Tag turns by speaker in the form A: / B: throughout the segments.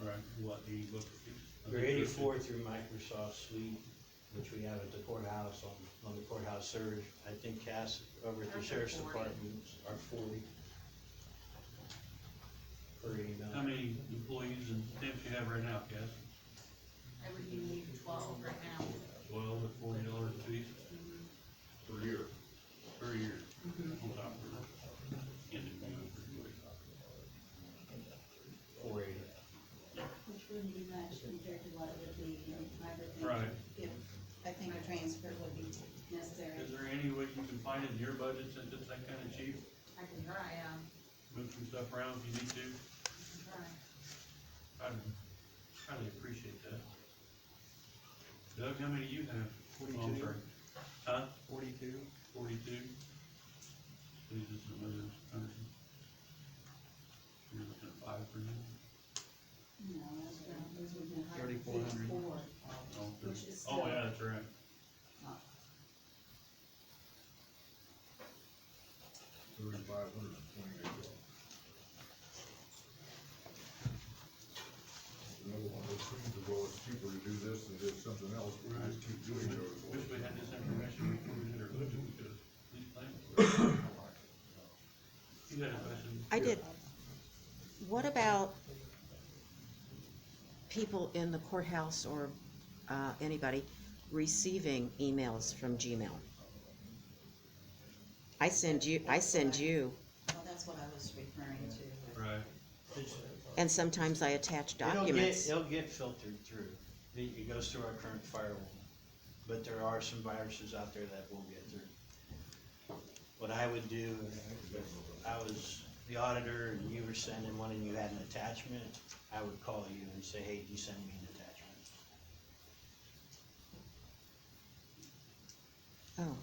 A: on what the
B: We're
A: book. I think there's-
B: eighty-four through Microsoft Suite, which we have at the courthouse, on, on the courthouse surge. I think Cass, over at the
C: Ours are
B: sheriff's
C: 40.
B: department, are forty. Per email.
A: How many employees and temps you have right now, Cass?
C: I would need twelve right now.
A: Twelve at forty dollars a piece
D: per year.
A: per year. On top of it. And then you-
B: Four eighty.
E: Which wouldn't be much compared to what it would be in private.
A: Right.
E: If, I think a transfer would be necessary.
A: Is there any way you can find in your budget since it's that kind of cheap,
C: I can try, um,
A: move some stuff around if you need to?
C: I can try.
A: I'd highly appreciate that. Doug, how many do you have?
F: Forty-two.
A: Oh, I'm sorry. Huh?
F: Forty-two?
A: Forty-two? Leaves us another hundred. You're looking at five for now?
E: No, that's around, those would be a hundred and
F: 3,400.
E: fifty-four.
A: Oh,
E: Which is
A: Oh,
E: still-
A: yeah, that's right.
D: Thirty-five hundred and twenty-eight dollars. In other words, it seems as though it's cheaper to do this than do something else, we just keep doing those.
A: Wish we had this information before we did our budget, we could have at least planned for it. You had a question?
G: I did. What about people in the courthouse or uh, anybody receiving emails from Gmail? I send you, I send you,
E: Well, that's what I was referring to.
A: Right.
B: It's-
G: and sometimes I attach
B: It'll get,
G: documents.
B: it'll get filtered through. It, it goes through our current firewall. But there are some viruses out there that will get through. What I would do if if I was the auditor and you were sending one and you had an attachment, I would call you and say, hey, you send me an attachment.
G: Oh,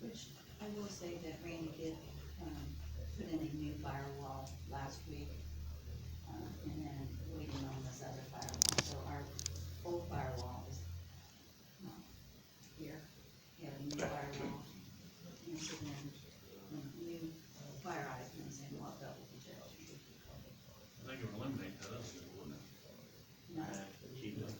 E: Which, I will say that Randy did, um, put in a new firewall last week. Um, and then waiting on this other firewall, so our old firewall is not here. We have a new firewall. And so then, when the um, new FireEye comes in, we'll double
A: I
E: check.
A: think it would eliminate that, wouldn't it?
E: No,
B: Uh, keep it.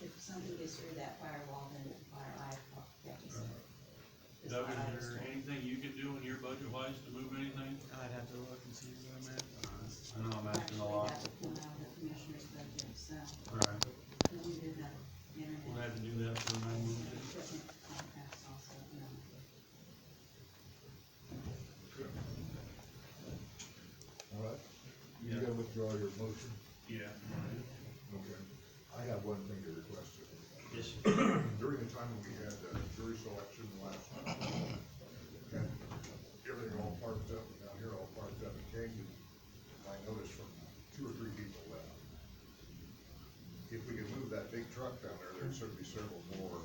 E: if somebody gets through that firewall, then the FireEye catches it. It's
A: Doug,
E: not ours
A: is there
E: to-
A: anything you could do in your budget wise to move anything?
F: I'd have to look and see where I'm at.
A: I know I'm asking a lot.
E: Actually, that would come out of the commissioner's budget, so,
A: Right.
E: then we did that
A: We'll have
E: internet
A: to do that for nine months.
E: equipment contracts also, you know.
D: All right, you
A: Yeah.
D: gotta withdraw your motion,
A: Yeah.
D: okay? I have one thing to request.
B: Yes,
D: During the time we had uh, jury selection last time, and everything all parked up, and down here all parked up in Canyon, I noticed from two or three people that if we could move that big truck down there, there'd certainly be several more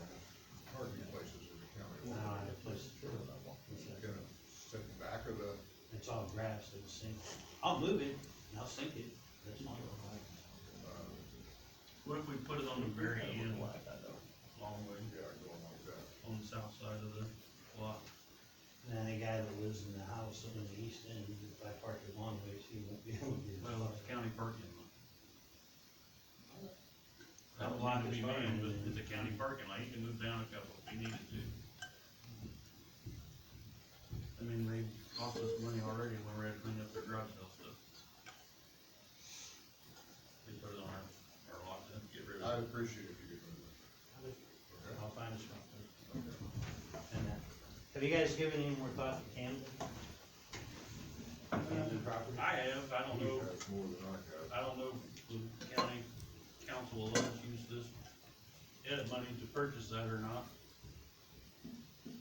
D: parking places in the county.
B: no, that place,
D: Gonna sit in back of the
B: it's all grass, it'll sink. I'll move it, and I'll sink it, that's fine.
A: What if we put it on the very end, long way,
D: Yeah, going like that.
A: on the south side of the lot?
B: And then the guy that lives in the house on the east end, if I park it one way, he won't be able to get.
A: Well, it's county parking lot. That would line to be mine, but it's a county parking lot, you can move down a couple if you needed to. I mean, they cost us money already when we had to clean up their garage sale stuff. They put it on our, our lot, then get rid
D: I'd
A: of it.
D: appreciate if you could move it.
B: I'll find a spot. And, uh, Have you guys given any more thought to Camden? Camden property?
A: I have, I don't
D: You
A: know,
D: have more than I have.
A: I don't know if the county council will let us use this edit money to purchase that or not.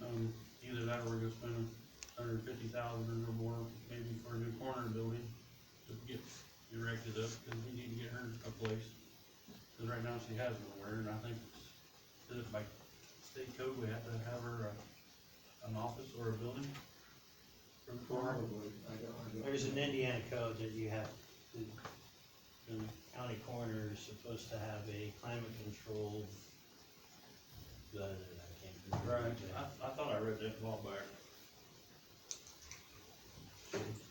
A: Um, either that or we're gonna spend a hundred and fifty thousand or more, maybe for a new corner building to get erected up, cause we need to get her a place. Cause right now she has nowhere, and I think, is it by state code, we have to have her, uh, an office or a building? For the corner,
D: I don't, I don't.
B: There's an Indiana code that you have, the the county coroner is supposed to have a climate controlled. blah, blah, blah, I can't remember.
A: right, I, I thought I read that law back.